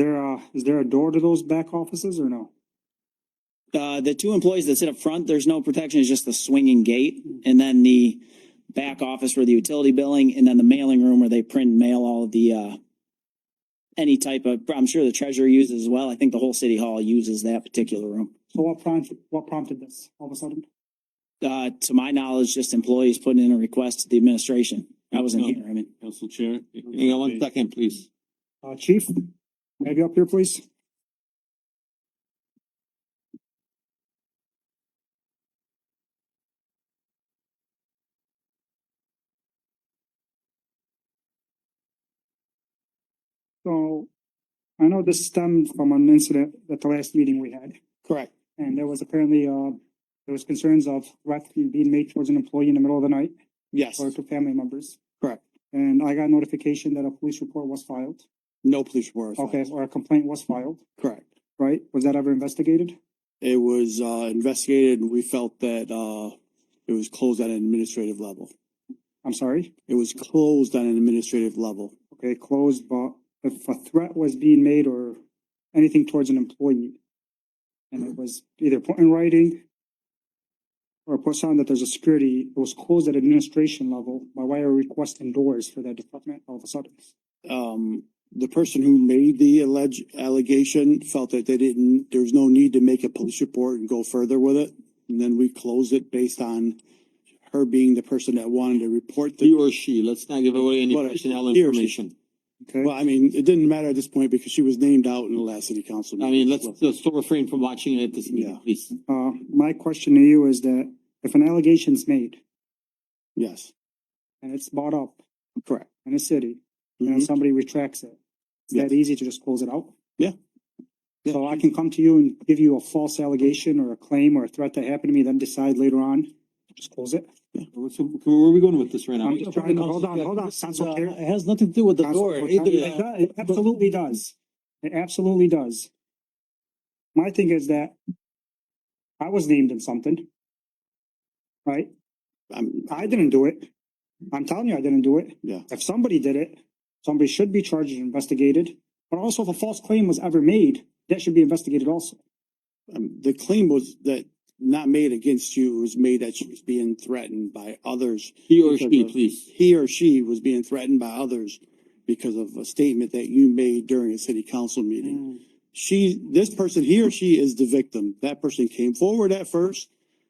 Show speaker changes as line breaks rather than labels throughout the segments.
Uh, is there a door to those back offices or no?
Uh, the two employees that sit up front, there's no protection, it's just the swinging gate. And then the back office for the utility billing and then the mailing room where they print and mail all of the, uh, any type of, I'm sure the treasurer uses as well. I think the whole city hall uses that particular room.
So what prompted, what prompted this all of a sudden?
Uh, to my knowledge, just employees putting in a request to the administration. I wasn't here, I mean.
Council Chair.
Hang on one second, please.
Uh, chief, maybe up here, please? So I know this stemmed from an incident at the last meeting we had.
Correct.
And there was apparently, uh, there was concerns of threats being made towards an employee in the middle of the night
Yes,
or to family members.
Correct.
And I got notification that a police report was filed,
no police report. was
okay,
filed.
or a complaint was filed,
Correct.
right? Was that ever investigated?
It was, uh, investigated and we felt that, uh, it was closed at an administrative level.
I'm sorry,
It was closed on an administrative level.
okay, closed, but if a threat was being made or anything towards an employee, and it was either put in writing or put on that there's a security, it was closed at administration level, by why are we requesting doors for that department all of a sudden?
Um, the person who made the alleged allegation felt that they didn't, there was no need to make a police report and go further with it. And then we closed it based on her being the person that wanted to report
He
the,
or she, let's not give away any
What-
personnel
he or she.
information.
Okay,
well, I mean, it didn't matter at this point because she was named out in the last city council.
I
meeting.
mean, let's, let's still refrain from watching it at this meeting,
Yeah.
please.
uh, my question to you is that if an allegation's made
Yes,
and it's brought up
correct.
in a city, and then
Mhm.
somebody retracts it. Is that easy to just close it out?
Yeah.
So I can come to you and give you a false allegation or a claim or a threat that happened to me, then decide later on, just close it.
What's- Where are we going with this right now? uh,
I'm just trying to, hold on, hold on, Council Chair.
It has nothing to do with the
Council-
door.
It
either.
does- it absolutely does. It absolutely does. My thing is that I was named in something. Right?
I'm,
I didn't do it. I'm telling you, I didn't do it.
Yeah.
If somebody did it, somebody should be charged and investigated. But also if a false claim was ever made, that should be investigated also.
um, the claim was that not made against you, it was made that she was being threatened by others.
He or
Because
she,
of-
please.
He or she was being threatened by others because of a statement that you made during a city council meeting. She, this person, he or she is the victim. That person came forward at first.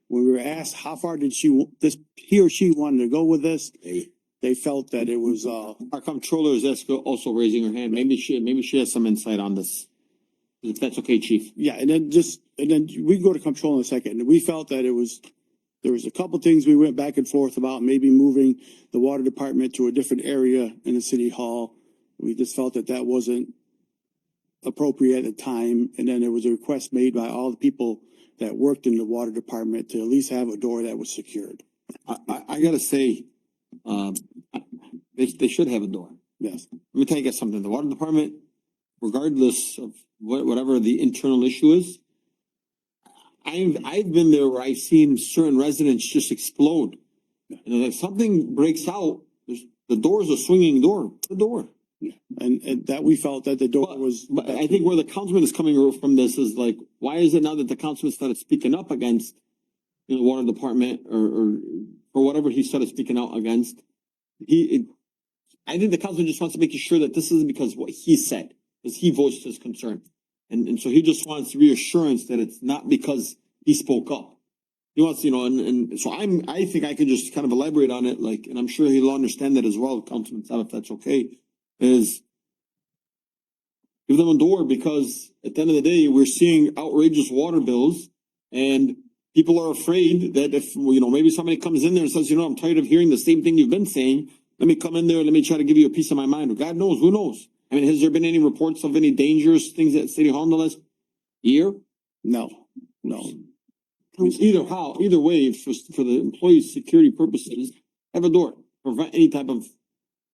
When we were asked how far did she, wa- this, he or she wanted to go with this, they felt that it was, uh,
Our comptroller is also- also raising her hand. Maybe she, maybe she has some insight on this. If that's okay, chief.
Yeah, and then just, and then we can go to control in a second. And we felt that it was, there was a couple things we went back and forth about, maybe moving the water department to a different area in the city hall. We just felt that that wasn't appropriate at the time. And then there was a request made by all the people that worked in the water department to at least have a door that was secured.
I, I, I gotta say, um, I- they, they should have a door.
Yes,
Let me tell you guys something. The water department, regardless of what, whatever the internal issue is, I've, I've been there where I've seen certain residents just explode. And if something breaks out, there's, the door's a swinging door, the door.
and, and that we felt that the door
But-
was.
But I think where the councilman is coming from this is like, why is it now that the councilman started speaking up against you know, the water department or, or, or whatever he started speaking out against? He, it, I think the councilman just wants to make sure that this isn't because what he said, because he voiced his concern. And, and so he just wants reassurance that it's not because he spoke up. He wants, you know, and, and so I'm, I think I can just kind of elaborate on it, like, and I'm sure he'll understand that as well, Councilman Saab, if that's okay, is give them a door because at the end of the day, we're seeing outrageous water bills and people are afraid that if, you know, maybe somebody comes in there and says, you know, I'm tired of hearing the same thing you've been saying. Let me come in there. Let me try to give you a piece of my mind. God knows, who knows? I mean, has there been any reports of any dangerous things at City Hall in the last year?
No, no.
I mean, Either how, either way, for, for the employees' security purposes, have a door, prevent any type of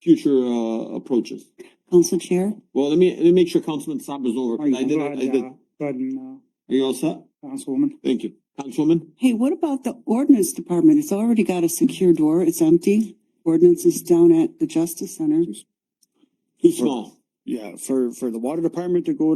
future, uh, approaches.
Council Chair,
Well, let me, let me make sure Councilman Saab is over.
Go
'cause I
ahead,
did, I did.
uh,
Are
go ahead and,
you all set?
uh, Councilwoman.
Thank you. Councilwoman?
hey, what about the ordinance department? It's already got a secure door. It's empty. Ordinance is down at the Justice Center.
Too small.
Yeah, for, for the water department to go